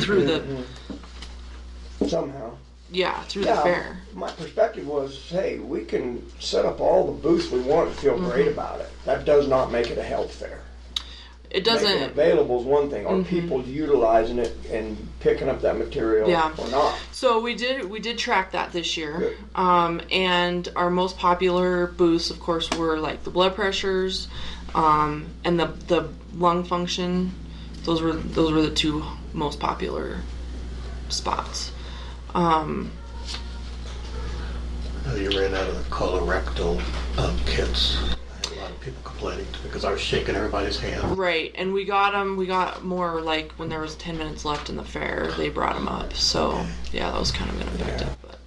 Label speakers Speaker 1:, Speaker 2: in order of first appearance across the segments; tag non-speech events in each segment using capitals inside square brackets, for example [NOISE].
Speaker 1: through
Speaker 2: Mm-hmm.
Speaker 1: the
Speaker 2: somehow.
Speaker 1: yeah through
Speaker 2: Yeah,
Speaker 1: the fair.
Speaker 2: My perspective was, hey, we can set up all the booths we want and feel great
Speaker 1: Mm-hmm.
Speaker 2: about it. That does not make it a health fair.
Speaker 1: It
Speaker 2: Making it
Speaker 1: doesn't. Mm-hmm.
Speaker 2: available is one thing. Are people utilizing it and picking up that material
Speaker 1: Yeah.
Speaker 2: or not?
Speaker 1: So we did we did track that this year,
Speaker 2: Good.
Speaker 1: um, and our most popular booths, of course, were like the blood pressures, um, and the the lung function. Those were those were the two most popular spots.
Speaker 3: Oh, You ran out of the colorectal um, kits. I had a lot of people complaining to because I was shaking everybody's hand.
Speaker 1: Right, and we got them. We got more like when there was ten minutes left in the fair. They brought them up. So yeah, that was kind of ineffective. But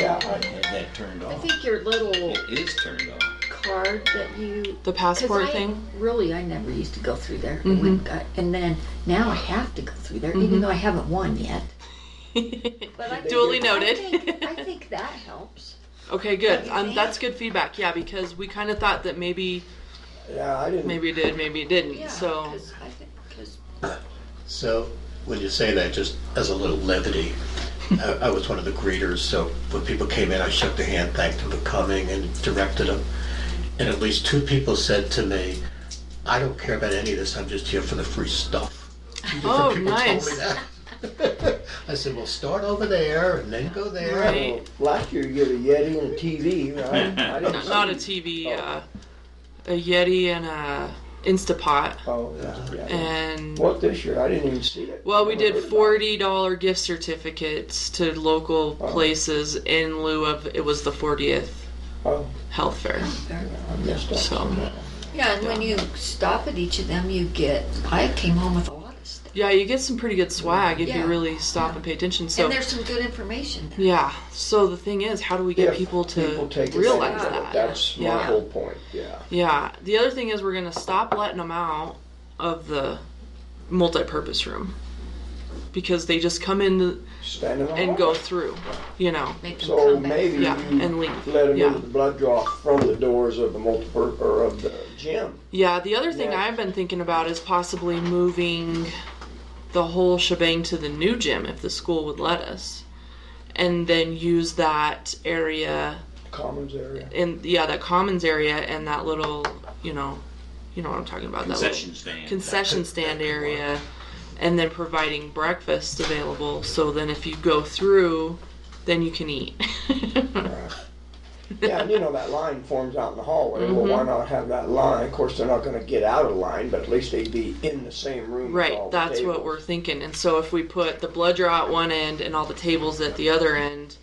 Speaker 2: Yeah.
Speaker 4: I had that turned
Speaker 5: I
Speaker 4: off.
Speaker 5: think your little
Speaker 4: It is turned off.
Speaker 5: card that you.
Speaker 1: the
Speaker 5: 'cause
Speaker 1: passport
Speaker 5: I-
Speaker 1: thing. Mm-hmm.
Speaker 5: Really, I never used to go through there. I wouldn't go- And then now I have to go through there, even though I haven't won yet. But I
Speaker 1: Duly
Speaker 5: think- I
Speaker 1: noted.
Speaker 5: think- I think that helps.
Speaker 1: [LAUGHS] Okay, good.
Speaker 5: Don't you
Speaker 1: Um,
Speaker 5: think?
Speaker 1: that's good feedback. Yeah, because we kind of thought that maybe
Speaker 2: Yeah, I didn't.
Speaker 1: maybe it did, maybe it didn't.
Speaker 5: Yeah,
Speaker 1: so
Speaker 5: 'cause I think, because
Speaker 3: So when you say that, just as a little levity, I, I was one of the greeters. So when people came in, I shook their hand, thanked them for coming, and directed them. And at least two people said to me, "I don't care about any of this. I'm just here for the free stuff." Two different
Speaker 1: Oh,
Speaker 3: people
Speaker 1: nice.
Speaker 3: Told me that. [LAUGHS] I said, "Well, start over there and then go there."
Speaker 1: Right.
Speaker 2: Well, last year you get a Yeti and a
Speaker 1: [LAUGHS]
Speaker 2: TV, right? I didn't
Speaker 1: not,
Speaker 2: see-
Speaker 1: not a TV,
Speaker 5: Oh.
Speaker 1: uh, a Yeti and a Instapot,
Speaker 2: Oh, yeah, yeah.
Speaker 1: and
Speaker 2: What this year? I didn't even see it.
Speaker 1: well, we
Speaker 2: I
Speaker 1: did
Speaker 2: heard about it.
Speaker 1: forty dollar gift certificates to local places in lieu of it was the fortieth
Speaker 2: Oh,
Speaker 1: health fair.
Speaker 2: I missed out.
Speaker 1: So.
Speaker 2: somehow.
Speaker 5: Yeah, and when you stop at each of them, you get. I came home with a lot of stuff.
Speaker 1: Yeah, you get some pretty good swag if
Speaker 5: Yeah.
Speaker 1: you really stop and pay attention. So
Speaker 5: And there's some good information there.
Speaker 1: yeah. So the thing is, how do we get
Speaker 2: If
Speaker 1: people to
Speaker 2: people take
Speaker 1: realize
Speaker 2: advantage of it,
Speaker 1: that?
Speaker 2: That's my
Speaker 1: Yeah.
Speaker 2: whole point. Yeah.
Speaker 1: Yeah. The other thing is we're gonna stop letting them out of the multi-purpose room because they just come in
Speaker 2: Stand in the
Speaker 1: and
Speaker 2: hall.
Speaker 1: go through, you know.
Speaker 5: Make them
Speaker 2: So
Speaker 5: come back.
Speaker 2: maybe
Speaker 1: Yeah,
Speaker 2: you
Speaker 1: and leave.
Speaker 2: let them
Speaker 1: Yeah.
Speaker 2: into the blood draw from the doors of the multiple or of the gym.
Speaker 1: Yeah. The other thing
Speaker 2: Yeah.
Speaker 1: I've been thinking about is possibly moving the whole shebang to the new gym if the school would let us, and then use that area
Speaker 2: commons area.
Speaker 1: in yeah that commons area and that little you know you know what i'm talking about
Speaker 4: Concession
Speaker 1: that
Speaker 4: stand.
Speaker 1: little concession stand area and then providing breakfast available so then if you go through then you can eat
Speaker 2: Yeah, and you know that line forms out in the hallway.
Speaker 1: Mm-hmm.
Speaker 2: Well, why not have that line? Of course, they're not going to get out of line, but at least they'd be in the same room. with all
Speaker 1: right
Speaker 2: the
Speaker 1: that's what
Speaker 2: tables.
Speaker 1: we're thinking and so if we put the blood draw at one end and all the tables at the other end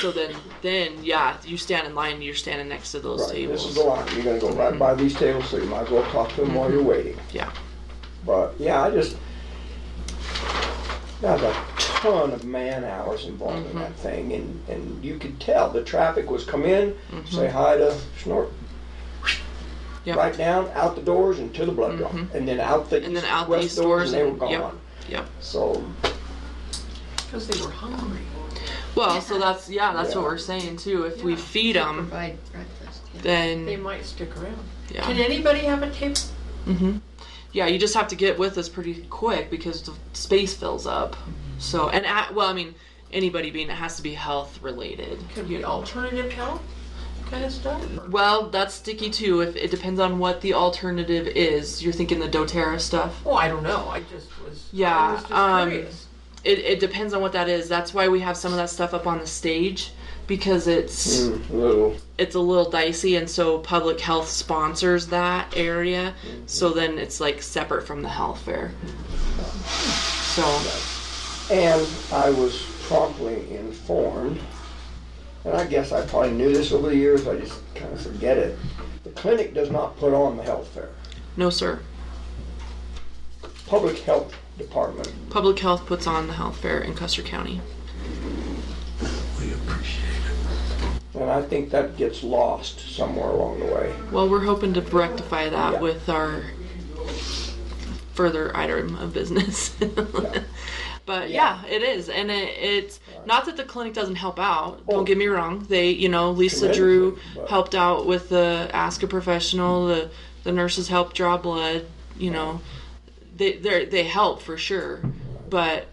Speaker 1: so then then yeah you stand in line you're standing next to those
Speaker 2: Right,
Speaker 1: tables
Speaker 2: this is the line. You're going to go right by these tables, so you might as well talk to them while you're waiting.
Speaker 1: Mm-hmm. yeah
Speaker 2: But yeah, I just there's a ton of man hours involved in
Speaker 1: Mm-hmm.
Speaker 2: that thing, and and you could tell the traffic was come in,
Speaker 1: Mm-hmm.
Speaker 2: say hi to Snort.
Speaker 1: Yep.
Speaker 2: Right down, out the doors and to the blood draw, and then out the
Speaker 1: Mm-hmm. and
Speaker 2: east,
Speaker 1: then out
Speaker 2: west
Speaker 1: these
Speaker 2: doors,
Speaker 1: doors
Speaker 2: and they
Speaker 1: and
Speaker 2: were gone.
Speaker 1: yep yep
Speaker 2: So
Speaker 5: Because they were hungry.
Speaker 1: well so that's yeah that's what
Speaker 2: Yeah.
Speaker 1: we're saying too if we
Speaker 6: Yeah.
Speaker 1: feed them
Speaker 5: Provide breakfast. yeah.
Speaker 1: then
Speaker 6: They might stick around.
Speaker 1: yeah.
Speaker 6: Can anybody have a table?
Speaker 1: Mm-hmm. yeah, you just have to get with us pretty quick because the space fills up. So and at, well, I mean, anybody being it has to be health related.
Speaker 6: Could be alternative health kind of stuff.
Speaker 1: Well, that's sticky too. If it depends on what the alternative is, you're thinking the DoTerra stuff.
Speaker 6: Oh, I don't know. I just was.
Speaker 1: Yeah,
Speaker 6: I was just
Speaker 1: um,
Speaker 6: curious.
Speaker 1: It, it depends on what that is. That's why we have some of that stuff up on the stage because it's
Speaker 2: mm, little
Speaker 1: it's a little dicey and so public health sponsors that area so then it's like separate from the health fair so
Speaker 2: And I was promptly informed, and I guess I probably knew this over the years, I just kind of forget it. The clinic does not put on the health fair.
Speaker 1: no sir
Speaker 2: Public Health Department.
Speaker 1: public health puts on the health fair in custer county
Speaker 3: We appreciate it.
Speaker 2: And I think that gets lost somewhere along the way.
Speaker 1: Well, we're hoping to rectify that
Speaker 2: Yeah.
Speaker 1: with our further item of business. [LAUGHS] but yeah. it is, and it, it's not that the clinic doesn't help out.
Speaker 2: Oh.
Speaker 1: Don't get me wrong; they, you know, Lisa Drew
Speaker 2: Tremendously, but-
Speaker 1: helped out with the ask a professional. The the nurses helped draw blood. You know, they they they help for sure. but